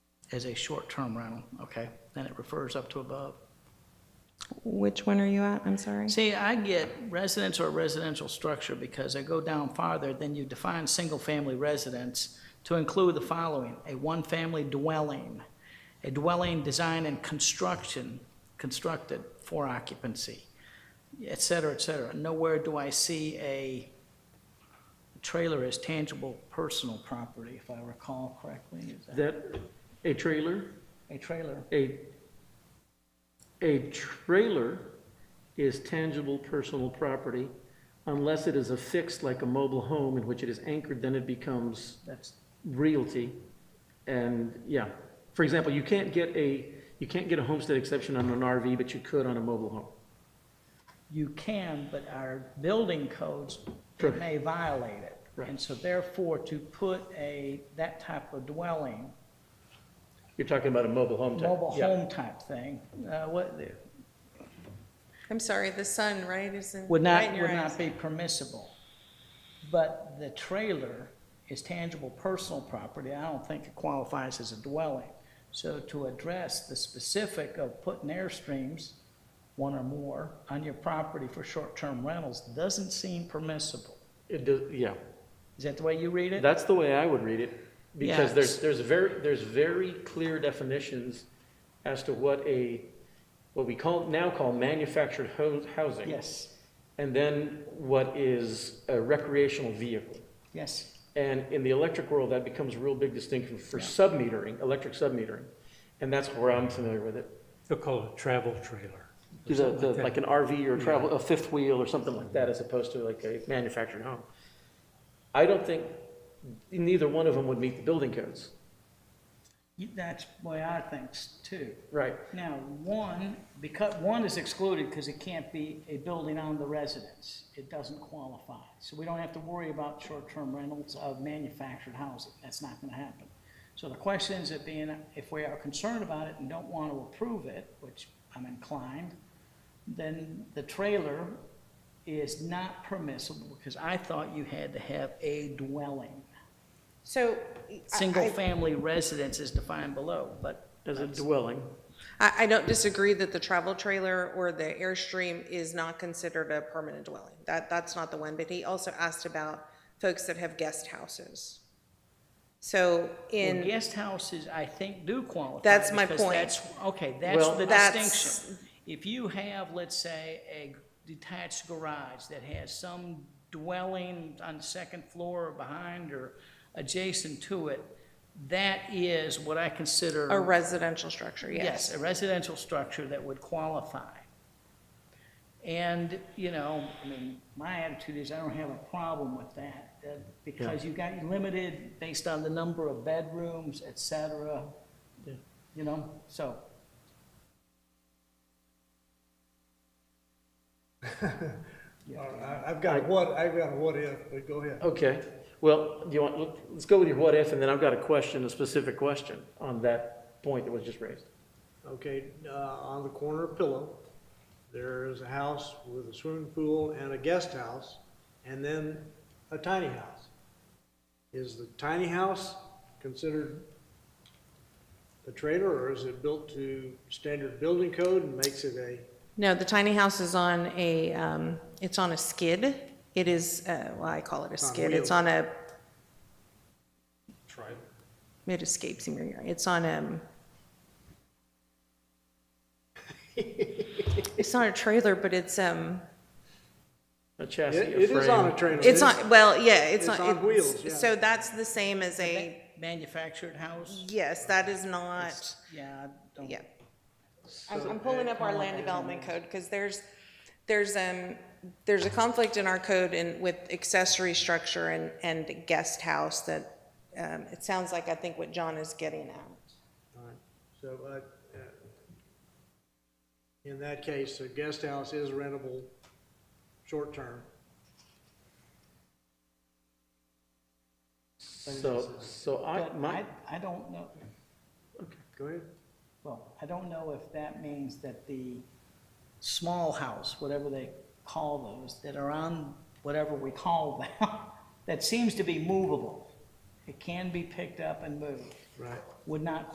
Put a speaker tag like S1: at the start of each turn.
S1: as a short-term rental, okay? Then it refers up to above.
S2: Which one are you at? I'm sorry.
S1: See, I get residence or residential structure because I go down farther, then you define single-family residence to include the following: a one-family dwelling, a dwelling designed and construction, constructed for occupancy, et cetera, et cetera. Nowhere do I see a trailer as tangible personal property, if I recall correctly. Is that
S3: That, a trailer,
S1: a trailer?
S3: a, a trailer is tangible personal property unless it is affixed like a mobile home in which it is anchored, then it becomes
S1: That's,
S3: realty. And, yeah, for example, you can't get a, you can't get a homestead exception on an RV, but you could on a mobile home.
S1: you can, but our building codes, it
S3: Correct.
S1: may violate it.
S3: Right.
S1: And so therefore, to put a, that type of dwelling,
S3: You're talking about a mobile home type.
S1: mobile
S3: yeah.
S1: home type thing, uh, what,
S2: I'm sorry, the sun, right, is in,
S1: would
S2: right
S1: not,
S2: in your
S1: would not
S2: eyes.
S1: be permissible. But the trailer is tangible personal property, I don't think it qualifies as a dwelling. So to address the specific of putting airstreams, one or more, on your property for short-term rentals, doesn't seem permissible.
S3: It does, yeah.
S1: Is that the way you read it?
S3: That's the way I would read it, because
S1: Yeah.
S3: there's, there's very, there's very clear definitions as to what a, what we call, now call manufactured ho- housing.
S1: Yes.
S3: And then what is a recreational vehicle.
S1: Yes,
S3: And in the electric world, that becomes a real big distinction for
S1: Yeah.
S3: sub-metering, electric sub-metering. And that's where I'm familiar with it.
S4: They'll call it travel trailer.
S3: The- the-
S4: like that.
S3: Like an RV or a travel, a fifth wheel or something like that, as opposed to like a manufactured home. I don't think, neither one of them would meet the building codes.
S1: You- that's the way I think s- too.
S3: Right.
S1: Now, one, because, one is excluded because it can't be a building on the residence. It doesn't qualify. So we don't have to worry about short-term rentals of manufactured housing. That's not gonna happen. So the question is, it being, if we are concerned about it and don't want to approve it, which I'm inclined, then the trailer is not permissible because I thought you had to have a dwelling.
S2: So, I,
S1: Single-family residence is defined below, but
S3: As a dwelling.
S2: I I don't disagree that the travel trailer or the Airstream is not considered a permanent dwelling. That, that's not the one, but he also asked about folks that have guest houses. So
S1: Well,
S2: in,
S1: guest houses, I think, do qualify.
S2: That's my
S1: because
S2: point.
S1: that's- Okay, that's
S3: Well-
S1: the
S2: That's-
S1: distinction. If you have, let's say, a detached garage that has some dwelling on the second floor or behind or adjacent to it, that is what I consider.
S2: a residential structure,
S1: Yes, a residential structure that would qualify. And, you know, I mean, my attitude is I don't have a problem with that, uh, because you got limited based on the number of bedrooms, et cetera,
S3: Yeah.
S1: you know, so.
S5: All right, I- I've got a what, I've got a what if, but go ahead.
S3: Okay, well, you want, let- let's go with your what if, and then I've got a question, a specific question on that point that was just raised.
S5: Okay, uh, on the corner of Pillow, there is a house with a swimming pool and a guest house, and then a tiny house. Is the tiny house considered a trailer, or is it built to standard building code and makes it a,
S2: No, the tiny house is on a, um, it's on a skid. It is, uh, well, I call it a
S5: on
S2: skid. It's
S5: wheels.
S2: on a,
S4: Trailer.
S2: it escapes me. It's on, um, it's not a trailer, but it's, um,
S3: A
S5: it
S3: chassis, a frame.
S5: it is on a trailer.
S2: it's on, well, yeah, it's
S5: It's
S2: on.
S5: on wheels, yeah.
S2: So that's the same as a,
S1: Manufactured house,
S2: yes, that is not,
S1: yeah, I don't.
S2: yeah. I'm, I'm pulling up our land development code because there's, there's, um, there's a conflict in our code and with accessory structure and, and guest house that, um, it sounds like I think what John is getting at.
S5: All right, so, uh, uh, in that case, the guest house is rentable, short-term.
S3: So, so I,
S1: But
S3: my,
S1: I, I don't know,
S5: Go ahead.
S1: well, I don't know if that means that the small house, whatever they call those, that are on whatever we call them, that seems to be movable. It can be picked up and moved.
S5: Right.
S1: would not